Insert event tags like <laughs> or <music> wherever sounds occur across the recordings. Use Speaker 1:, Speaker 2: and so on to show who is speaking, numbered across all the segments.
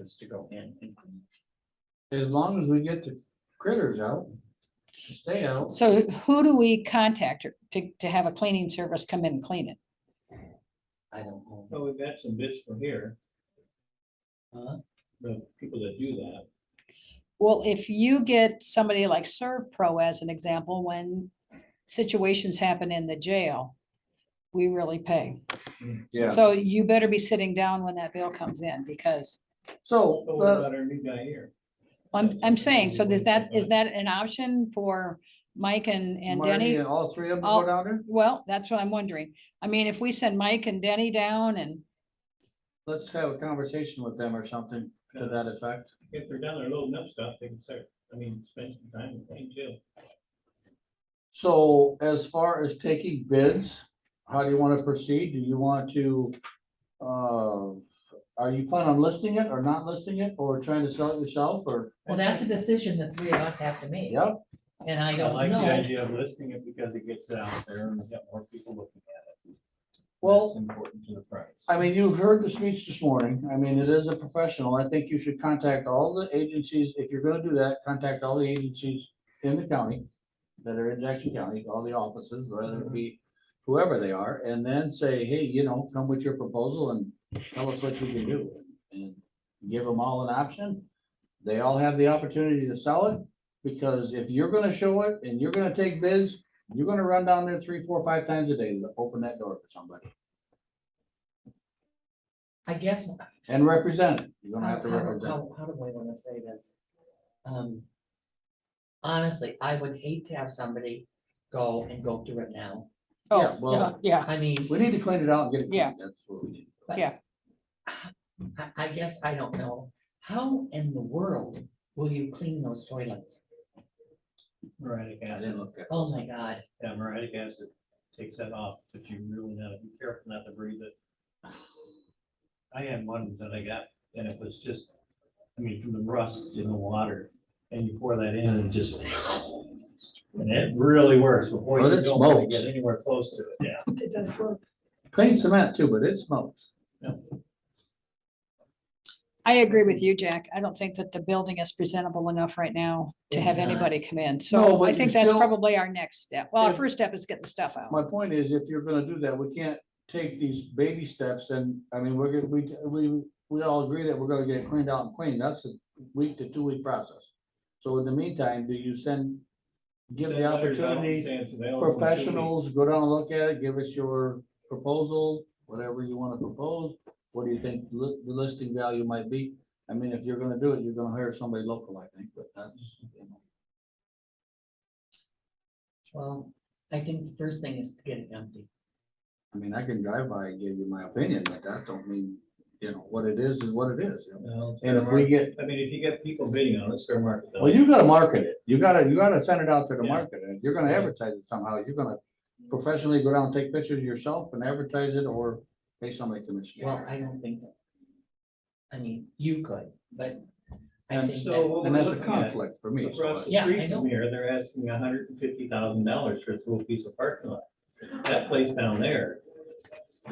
Speaker 1: is to go in.
Speaker 2: As long as we get the critters out, stay out.
Speaker 3: So who do we contact or- to, to have a cleaning service come in and clean it?
Speaker 2: I don't know.
Speaker 4: Well, we've got some bids from here.
Speaker 2: Huh?
Speaker 4: The people that do that,
Speaker 3: Well, if you get somebody like Serve Pro as an example, when situations happen in the jail, we really pay.
Speaker 2: Yeah,
Speaker 3: So you better be sitting down when that bill comes in because
Speaker 2: so,
Speaker 4: but Oh, what
Speaker 2: uh,
Speaker 4: about our new guy here?
Speaker 3: I'm, I'm saying, so is that, is
Speaker 4: Right.
Speaker 3: that an option for Mike and, and
Speaker 2: Marty
Speaker 3: Denny?
Speaker 2: and all three of them
Speaker 3: All-
Speaker 5: Oh.
Speaker 2: go down there?
Speaker 3: Well, that's what I'm wondering. I mean, if we send Mike and Denny down and
Speaker 2: Let's have a conversation with them or something to that effect.
Speaker 4: If they're down there loading up stuff, they can start, I mean, spend some time with them too.
Speaker 2: So as far as taking bids, how do you want to proceed? Do you want to? Uh, are you planning on listing it or not listing it or trying to sell it yourself or?
Speaker 5: Well, that's a decision the three of us have to make,
Speaker 2: Yep,
Speaker 5: and I
Speaker 4: I like
Speaker 5: don't
Speaker 4: the
Speaker 5: know.
Speaker 4: idea of listing it because it gets it out there and we got more people looking at it.
Speaker 2: Well,
Speaker 4: That's Important to the price.
Speaker 2: I mean, you've heard the speech this morning. I mean, it is a professional. I think you should contact all the agencies. If you're gonna do that, contact all the agencies in the county that are in Jackson County, all the offices, whether it be whoever they are, and then say, hey, you know, come with your proposal and tell us what you can do. And give them all an option. They all have the opportunity to sell it, because if you're gonna show it and you're gonna take bids, you're gonna run down there three, four, five times a day to open that door for somebody.
Speaker 5: I guess,
Speaker 2: And represent it. You're
Speaker 5: how,
Speaker 2: gonna have to
Speaker 5: how-
Speaker 2: represent. it.
Speaker 5: how- how do I wanna say this? Um, honestly, I would hate to have somebody go and go through it now.
Speaker 2: Yeah,
Speaker 3: Oh,
Speaker 2: well,
Speaker 3: yeah,
Speaker 5: I mean,
Speaker 2: we need to clean it out and get it.
Speaker 3: Yeah.
Speaker 2: cleaned. That's what we need.
Speaker 5: I, I guess I don't know, how in the world will you clean those toilets?
Speaker 4: Muriatic
Speaker 2: I
Speaker 4: acid,
Speaker 2: didn't look at.
Speaker 5: Oh my god,
Speaker 4: yeah, muriatic acid takes that off, but you really gotta be careful not to breathe it. I had one that I got and it was just, I mean, from the rust in the water and you pour that in and just. And it really works before you
Speaker 2: But
Speaker 4: go
Speaker 2: it
Speaker 4: and
Speaker 2: smokes.
Speaker 4: get anywhere close to it, yeah.
Speaker 3: It does work.
Speaker 2: Clean cement too, but it smokes.
Speaker 3: I agree with you, Jack. I don't think that the building is presentable enough right now to
Speaker 5: It's
Speaker 3: have
Speaker 5: not.
Speaker 3: anybody come in.
Speaker 2: No,
Speaker 3: So
Speaker 2: but
Speaker 3: I
Speaker 2: you
Speaker 3: think that's
Speaker 2: still-
Speaker 3: probably our next step. Well, our
Speaker 2: Yeah.
Speaker 3: first step is get the stuff out.
Speaker 2: My point is, if you're gonna do that, we can't take these baby steps and, I mean, we're, gonna- we, we, we all agree that we're gonna get it cleaned out and cleaned. That's a week to two week process. So in the meantime, do you send, give
Speaker 4: Send
Speaker 2: the
Speaker 4: letters out
Speaker 2: opportunity,
Speaker 4: saying it's available in two weeks.
Speaker 2: professionals, go down and look at it, give us your proposal, whatever you wanna propose. What do you think li- the listing value might be? I mean, if you're gonna do it, you're gonna hire somebody local, I think, but that's. you know.
Speaker 5: well, I think the first thing is to get it empty.
Speaker 2: I mean, I can drive by and give you my opinion, but that don't mean, you know, what it is is what it is. you know.
Speaker 4: No, it's
Speaker 2: And if
Speaker 4: fair
Speaker 2: we
Speaker 4: market.
Speaker 2: get,
Speaker 4: I mean, if you get people bidding on it, it's fair market.
Speaker 2: well, you gotta market it. You gotta, you gotta send it out to the
Speaker 4: Yeah.
Speaker 2: market. And if you're gonna advertise it somehow, you're gonna professionally go down, and take pictures yourself and advertise it or pay somebody commission.
Speaker 5: Well, I don't think that. I mean, you could, but. I
Speaker 2: And
Speaker 5: think
Speaker 4: so
Speaker 5: that-
Speaker 4: what
Speaker 2: And that's a
Speaker 4: Looking at it
Speaker 2: conflict for me. so I-
Speaker 4: Across the
Speaker 5: Yeah, I
Speaker 4: street
Speaker 5: know.
Speaker 4: from here, they're asking hundred and fifty thousand dollars for a little piece of parking lot. That place down there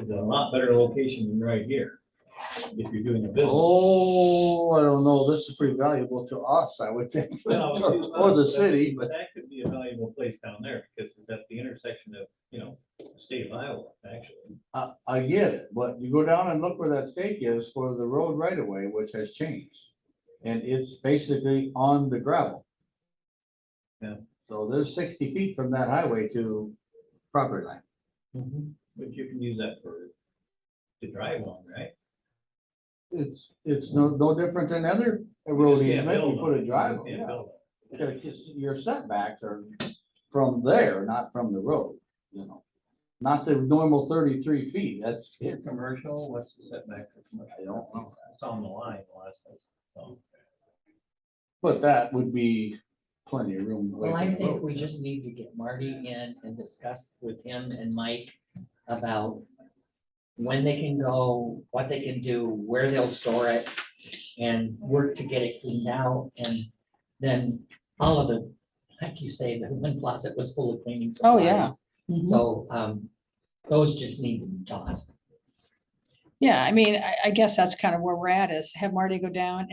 Speaker 4: is a lot better location than right here, if you're doing a business.
Speaker 2: Oh, I don't know, this is pretty valuable to us, I would think,
Speaker 4: Well,
Speaker 2: <laughs> or the city, but
Speaker 4: That could be a valuable place down there, because it's at the intersection of, you know, the state of Iowa, actually.
Speaker 2: I, I get it, but you go down and look where that stake is for the road right of way, which has changed. And it's basically on the gravel.
Speaker 4: Yeah.
Speaker 2: So there's sixty feet from that highway to property line.
Speaker 4: But you can use that for, to drive on, right?
Speaker 2: It's, it's no, no different than other
Speaker 4: You
Speaker 2: road
Speaker 4: just can't
Speaker 2: easement, you
Speaker 4: build on
Speaker 2: put
Speaker 4: it,
Speaker 2: a
Speaker 4: you
Speaker 2: drive,
Speaker 4: just can't
Speaker 2: yeah.
Speaker 4: build on it.
Speaker 2: You gotta kiss- Your setbacks are from there, not from the road, you know. Not the normal thirty-three feet, that's,
Speaker 4: Is
Speaker 2: it's,
Speaker 4: it commercial, what's the setback for commercial?
Speaker 2: I don't know.
Speaker 4: It's on the line, last, that's, so.
Speaker 2: but that would be plenty of room. away
Speaker 5: Well, I
Speaker 2: from the
Speaker 5: think
Speaker 2: road.
Speaker 5: we just need to get Marty in and discuss with him and Mike about when they can go, what they can do, where they'll store it, and work to get it cleaned out, and then all of the, like you say, the one closet was full of cleaning
Speaker 3: Oh, yeah.
Speaker 2: Mm-hmm.
Speaker 5: supplies. So, um, those just need to be tossed.
Speaker 3: Yeah, I mean, I, I guess that's kind of where we're at is have Marty go down